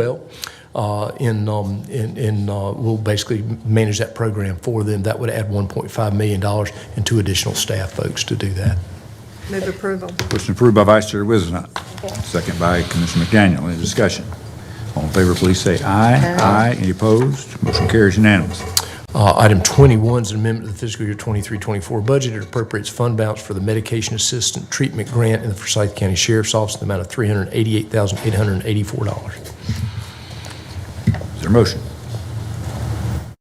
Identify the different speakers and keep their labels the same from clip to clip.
Speaker 1: well, uh, and, um, and, and uh, we'll basically manage that program for them. That would add $1.5 million and two additional staff folks to do that.
Speaker 2: Move approval.
Speaker 3: Motion approved by Vice Chair Wizenhut, second by Commissioner McDaniel. Any discussion? All in favor, please say aye. Aye. Any opposed? Motion carries unanimous.
Speaker 1: Uh, Item 21 is an amendment to the fiscal year 23-24 budget. It appropriates fund balance for the medication assistant treatment grant in the Forsyth County Sheriff's Office in the amount of $388,884.
Speaker 3: Is there a motion?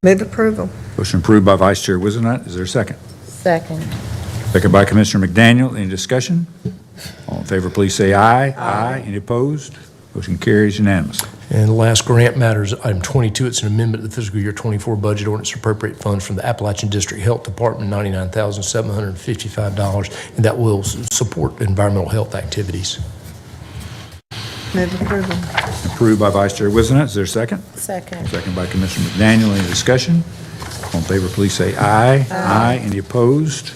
Speaker 2: Move approval.
Speaker 3: Motion approved by Vice Chair Wizenhut. Is there a second?
Speaker 4: Second.
Speaker 3: Second by Commissioner McDaniel. Any discussion? All in favor, please say aye. Aye. Any opposed? Motion carries unanimous.
Speaker 1: And last grant matters, item 22, it's an amendment to the fiscal year 24 budget ordinance to appropriate funds from the Appalachian District Health Department, $99,755, and that will s- support environmental health activities.
Speaker 2: Move approval.
Speaker 3: Approved by Vice Chair Wizenhut. Is there a second?
Speaker 4: Second.
Speaker 3: Second by Commissioner McDaniel. Any discussion? All in favor, please say aye. Aye. Any opposed?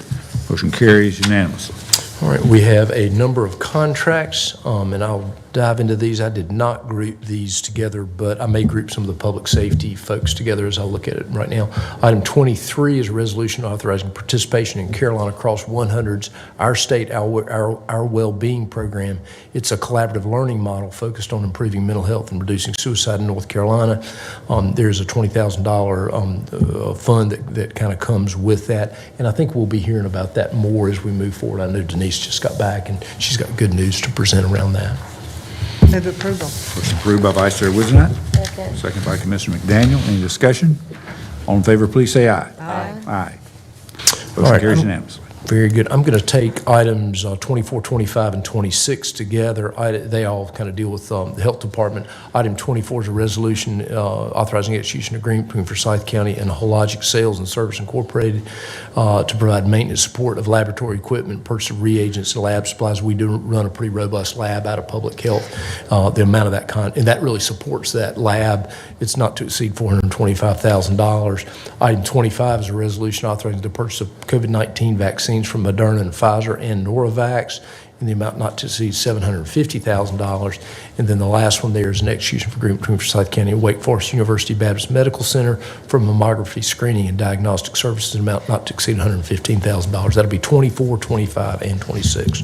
Speaker 3: Motion carries unanimously.
Speaker 1: All right, we have a number of contracts, um, and I'll dive into these. I did not group these together, but I may group some of the public safety folks together as I look at it right now. Item 23 is a resolution authorizing participation in Carolina Cross 100's Our State, Our Our Our Wellbeing Program. It's a collaborative learning model focused on improving mental health and reducing suicide in North Carolina. Um, There's a $20,000 um, uh, fund that- that kind of comes with that, and I think we'll be hearing about that more as we move forward. I know Denise just got back, and she's got good news to present around that.
Speaker 2: Move approval.
Speaker 3: Motion approved by Vice Chair Wizenhut.
Speaker 4: Second.
Speaker 3: Second by Commissioner McDaniel. Any discussion? All in favor, please say aye. Aye. Aye.
Speaker 1: All
Speaker 3: Motion
Speaker 1: right,
Speaker 3: carries
Speaker 1: I'm-
Speaker 3: unanimously.
Speaker 1: Very good. I'm going to take items uh, 24, 25, and 26 together. I- They all kind of deal with um, the Health Department. Item 24 is a resolution uh, authorizing execution agreement between Forsyth County and Hologic Sales and Service Incorporated uh, to provide maintenance support of laboratory equipment, purchase of reagents, and lab supplies. We do run a pretty robust lab out of public health. Uh, The amount of that kind, and that really supports that lab. It's not to exceed $425,000. Item 25 is a resolution authorizing the purchase of COVID-19 vaccines from Moderna and Pfizer and Noravax in the amount not to exceed $750,000. And then the last one there is an execution of agreement between Forsyth County and Wake Forest University Baptist Medical Center for mammography screening and diagnostic services in an amount not to exceed $115,000. That'll be 24, 25, and 26.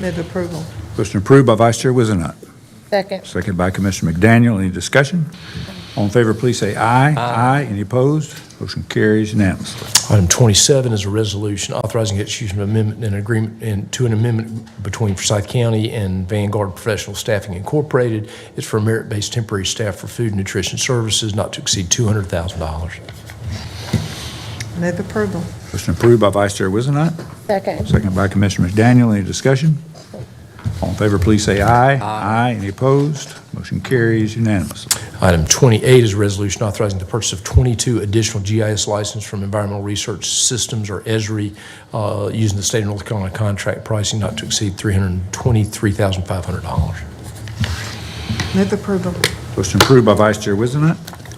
Speaker 2: Move approval.
Speaker 3: Motion approved by Vice Chair Wizenhut.
Speaker 4: Second.
Speaker 3: Second by Commissioner McDaniel. Any discussion? All in favor, please say aye. Aye. Any opposed? Motion carries unanimously.
Speaker 1: Item 27 is a resolution authorizing execution of amendment and agreement, and to an amendment between Forsyth County and Vanguard Professional Staffing Incorporated. It's for merit-based temporary staff for food and nutrition services not to exceed $200,000.
Speaker 2: Move approval.
Speaker 3: Motion approved by Vice Chair Wizenhut.
Speaker 4: Second.
Speaker 3: Second by Commissioner McDaniel. Any discussion? All in favor, please say aye. Aye. Any opposed? Motion carries unanimously.
Speaker 1: Item 28 is a resolution authorizing the purchase of 22 additional GIS licenses from Environmental Research Systems, or E ESRI, uh, using the state of North Carolina contract pricing not to exceed $323,500.
Speaker 2: Move approval.
Speaker 3: Motion approved by Vice Chair Wizenhut.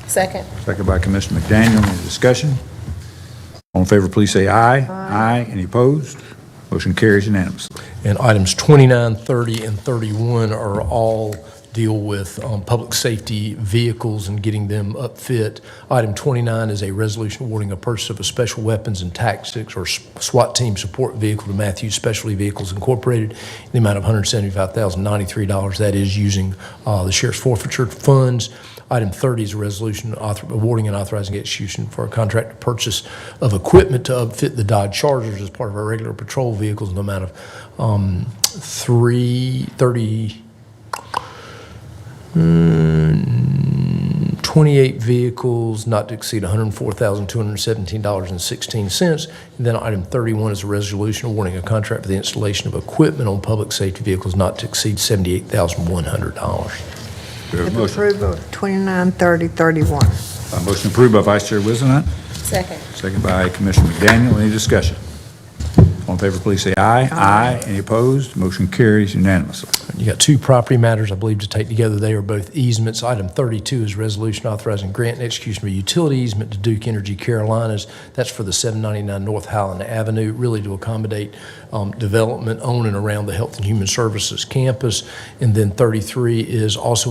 Speaker 4: Second.
Speaker 3: Second by Commissioner McDaniel. Any discussion? All in favor, please say aye. Aye. Any opposed? Motion carries unanimously.
Speaker 1: And items 29, 30, and 31 are all deal with um, public safety vehicles and getting them upfit. Item 29 is a resolution awarding a purchase of a special weapons and tactics or SWAT team support vehicle to Matthews Specialty Vehicles Incorporated in the amount of $175,093. That is using uh, the sheriff's forfeiture funds. Item 30 is a resolution author- awarding and authorizing execution for a contract to purchase of equipment to upfit the Dodge Chargers as part of our regular patrol vehicles in the amount of um, three, 30, mm, 28 vehicles, not to exceed $104,217.16. And Then item 31 is a resolution awarding a contract for the installation of equipment on public safety vehicles not to exceed $78,100.
Speaker 3: We have a
Speaker 2: Move
Speaker 3: motion.
Speaker 2: approval. 29, 30, 31.
Speaker 3: A motion approved by Vice Chair Wizenhut,
Speaker 4: Second.
Speaker 3: second by Commissioner McDaniel. Any discussion? All in favor, please say aye. Aye. Any opposed? Motion carries unanimously.
Speaker 1: You got two property matters, I believe, to take together. They are both easements. Item 32 is resolution authorizing grant and execution of a utility easement to Duke Energy Carolinas. That's for the 799 North Highland Avenue, really to accommodate um, development on and around the Health and Human Services campus. And then 33 is also an